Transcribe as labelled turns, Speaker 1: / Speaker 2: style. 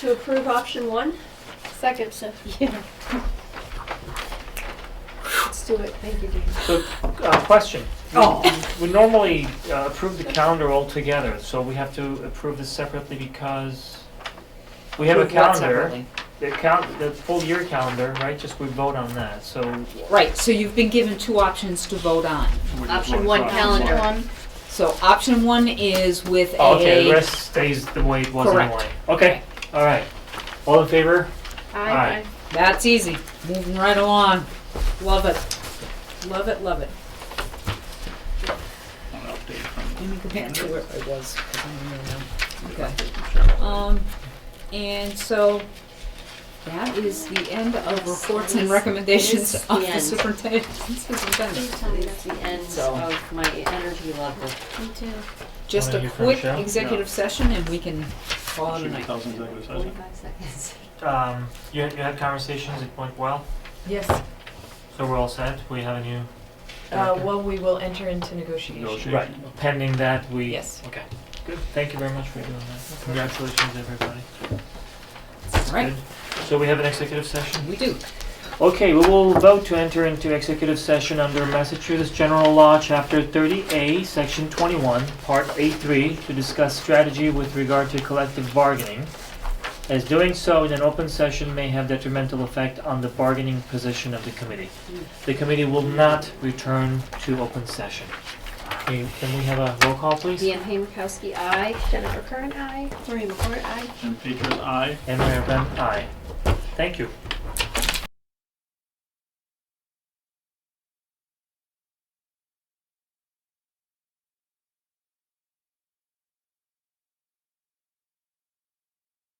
Speaker 1: to approve option one.
Speaker 2: Second, so, yeah. Let's do it, thank you, Dean.
Speaker 3: So, uh, question. We-
Speaker 4: Oh.
Speaker 3: We normally uh, approve the calendar altogether, so we have to approve this separately because we have a
Speaker 4: Approve what
Speaker 3: calendar,
Speaker 4: separately?
Speaker 3: the count, the full year calendar, right? Just we vote on that, so.
Speaker 4: Right, so you've been given two options to vote on.
Speaker 2: Option one, calendar.
Speaker 4: So option one is with a.
Speaker 3: Oh, Okay, the rest stays the way it was
Speaker 4: Correct.
Speaker 3: anyway. Okay, all right. All in favor? Aye.
Speaker 4: That's easy, moving right along. Love it, love it, love it. Let me go back to where I was, 'cause I'm here now. Okay. Um, and so that is the end of reports and recommendations
Speaker 2: Yes,
Speaker 4: of
Speaker 2: the
Speaker 4: the
Speaker 2: end.
Speaker 4: superintendent. superintendent.
Speaker 2: Please tell me that's the end
Speaker 4: So-
Speaker 2: of my energy level. Me too.
Speaker 4: Just
Speaker 3: Wanna
Speaker 4: a
Speaker 3: hear from
Speaker 4: quick
Speaker 3: Michelle?
Speaker 4: executive session and we can call it a night.
Speaker 2: Forty-five seconds.
Speaker 3: Um, you, you had conversations, it went well,
Speaker 5: Yes,
Speaker 3: so we're all set. We have a new.
Speaker 5: uh,
Speaker 3: director.
Speaker 5: well, we will enter into negotiation.
Speaker 3: Right, pending that, we.
Speaker 5: Yes.
Speaker 3: Okay, good. Thank you very much for doing that. Congratulations, everybody.
Speaker 4: Right,
Speaker 3: Good. So we have an executive session?
Speaker 4: we do.
Speaker 3: Okay, we will vote to enter into executive session under Massachusetts General Law, Chapter 30A, Section 21, Part A3, to discuss strategy with regard to collective bargaining, as doing so in an open session may have detrimental effect on the bargaining position of the committee. The committee will not return to open session. Okay, Can we have a roll call, please?
Speaker 2: Deanne Hamerkowski, aye. Jennifer Curran, aye. Maureen McCourt, aye.
Speaker 6: And Peter's eye.
Speaker 3: And Mayor Ben, aye. Thank you.